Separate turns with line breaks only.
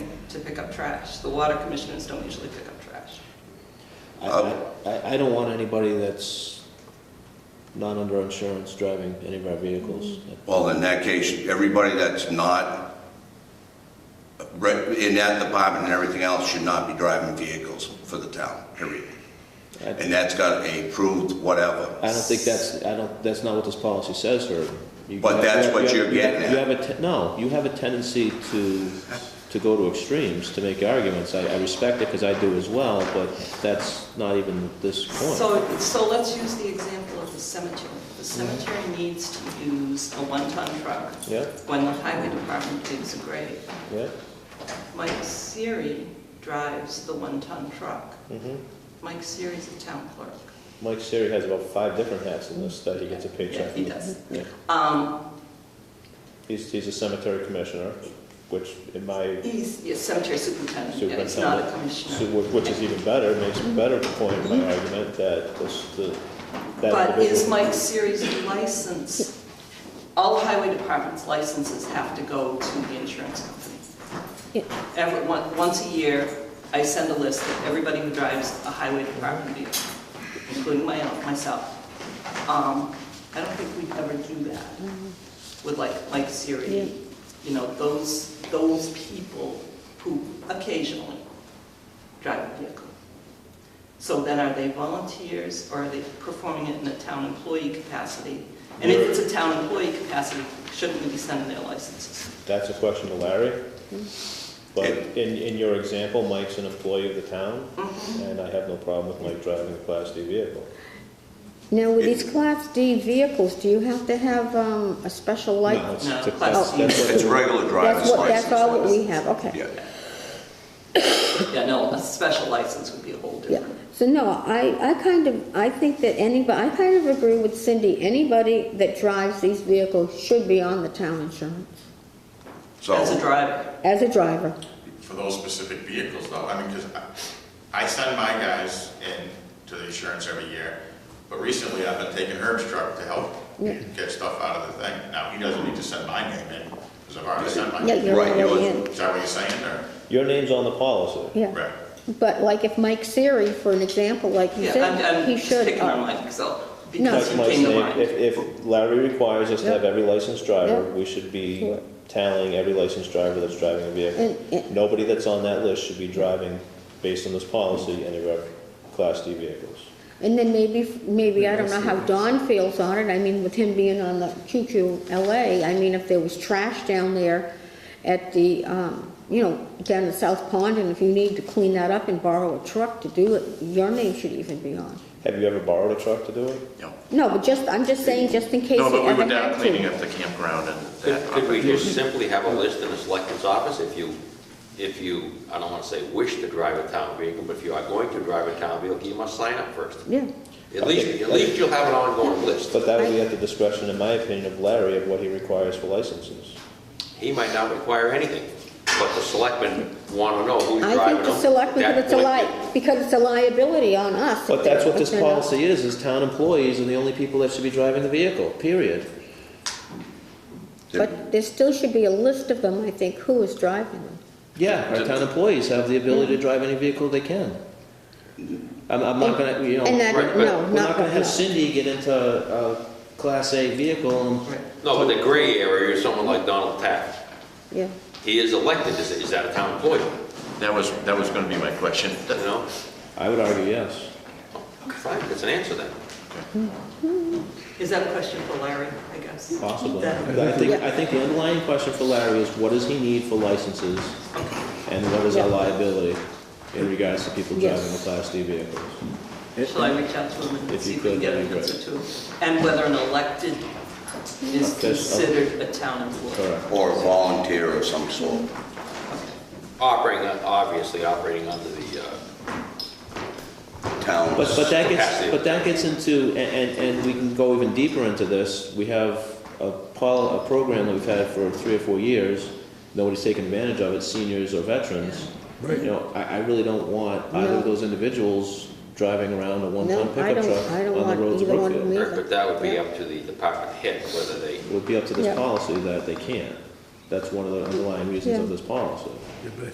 pick up trash. The water commissioners don't usually pick up trash.
I,
Um,
I, I don't want anybody that's not under insurance driving any of our vehicles.
Well, in that case, everybody that's not re- in that department and everything else should not be driving vehicles for the town, period.
I
And that's got a approved whatever.
I don't think that's, I don't, that's not what this policy says, Herb. You-
But
you-
that's
you-
what
you-
you're
you-
getting at.
You have a, te- no, you have a tendency to, to go to extremes, to make arguments. I, I respect it, because I do as well, but that's not even this point.
So, so let's use the example of the cemetery. The cemetery needs to use a one-ton truck
Yeah,
when the highway department digs a grave.
yeah,
Mike Siri drives the one-ton truck.
mhm.
Mike Siri's a town clerk.
Mike Siri has about five different hats in this that he gets a
Yeah,
paycheck
he
from.
does.
Yeah.
Um,
He's, he's a cemetery commissioner, which in my,
he's a cemetery superintendent, yeah, he's not a commissioner.
so whi- which is even better, makes a better point in my argument that this, the, that
But is
individual.
Mike Siri's license, all highway department's licenses have to go to the insurance company.
Yeah.
Every, on- once a year, I send a list of everybody who drives a highway department vehicle, including my, own- myself. Um, I don't think we ever do that with like Mike
Yeah.
Siri. You know, those, those people who occasionally drive a vehicle. So then are they volunteers or are they performing it in a town employee capacity? And if it's a town employee capacity, shouldn't we be sending their licenses?
That's a question to Larry. But in, in your example, Mike's an employee of the town,
Mm-hmm.
and I have no problem with Mike driving a Class D vehicle.
Now, with these Class D vehicles, do you have to have um, a special
No,
license?
it's- it's
No,
a- that's-
Class D.
that's what-
It's regular
That's
driver's
what,
license.
that's all what we have, okay.
Yeah.
Yeah, no, a special license would be a whole
Yeah,
different.
so no, I, I kind of, I think that anybody, I kind of agree with Cindy, anybody that drives these vehicles should be on the town insurance,
As a
So,
driver,
as a driver.
for those specific vehicles though, I mean, because I send my guys in to the insurance every year, but recently I've been taking Herb's truck to help
Yeah.
get stuff out of the thing. Now, he doesn't need to send my name in, because I've already sent
Yeah,
mine.
you're
Right, you
already
would-
in,
Is that what you're saying, or?
Your name's on the policy.
yeah.
Right.
But like if Mike Siri, for an example, like you
yeah,
said,
I'm,
he
I'm just
should.
picking
uh,
on myself
No.
because
That's
it
Mike's
came to
name.
mind.
If, if Larry requires us to have
Yeah.
every licensed driver,
Yeah.
we should be
Sure.
tallying every licensed driver that's driving a
And-
vehicle.
and-
Nobody that's on that list should be driving, based on this policy, any of our Class D vehicles.
And then maybe, maybe, I don't know how Don feels on it, I mean, with him being on the QQLA, I mean, if there was trash down there at the, um, you know, down at South Pond, and if you need to clean that up and borrow a truck to do it, your name should even be on.
Have you ever borrowed a truck to do it?
No.
No, but just, I'm just saying, just in case you
No,
ever
but we
had
were down
to.
cleaning up the campground and that.
Could could we just simply have a list in the selectman's office if you, if you, I don't want to say wish to drive a town vehicle, but if you are going to drive a town vehicle, you must sign up first.
Yeah,
At least, at least you'll have an ongoing list.
But that would be at the discretion, in my opinion, of Larry of what he requires for licenses.
He might not require anything, but the selectmen want to know who's
I
driving
think
them.
the selectmen,
That
because it's a
point-
li, because it's a liability on us. if
But that's
they're-
what
if
this
they're not-
policy is, is town employees are the only people that should be driving the vehicle, period.
But there still should be a list of them, I think, who is driving them.
Yeah, our town employees have the ability to drive any vehicle they can. I'm, I'm not gonna, you know,
And I,
right,
don't-
but
no,
we're not
not,
gonna have
no.
Cindy get into a Class A vehicle and,
No, but the gray area is someone like Donald Taft.
Yeah.
He is elected, is, is that a town employee,
That was, that was gonna be my question.
you know?
I would argue yes.
Fine, that's an answer then.
Is that a question for Larry, I guess?
Possibly.
That-
I think,
Yeah.
I think the underlying question for Larry is what does he need for licenses? And what is our
Yeah.
liability in regards to people
Yes.
driving the Class D vehicles?
Shall I reach out to him and
If
see
you
if we can
could,
get
that'd
an
be
answer to him? And whether an elected is
Official.
considered a town employee?
Correct.
or a volunteer of some sort.
Operating, on- obviously operating under the, uh,
Town,
But, but that gets,
Capacity.
but that gets into, and, and, and we can go even deeper into this. We have a pol, a program that we've had for three or four years. Nobody's taken advantage of it, seniors or veterans. Right. You know, I, I really don't want either
No.
of those individuals driving around a
No,
one-ton
I
pickup
don't-
truck
I don't
on
want
the roads of
either one of
Brookfield.
me.
Right, But that would be up to the department head, whether they,
It would be up to this
Yeah.
policy that they can't. That's one of the underlying reasons of
Yeah.
this policy.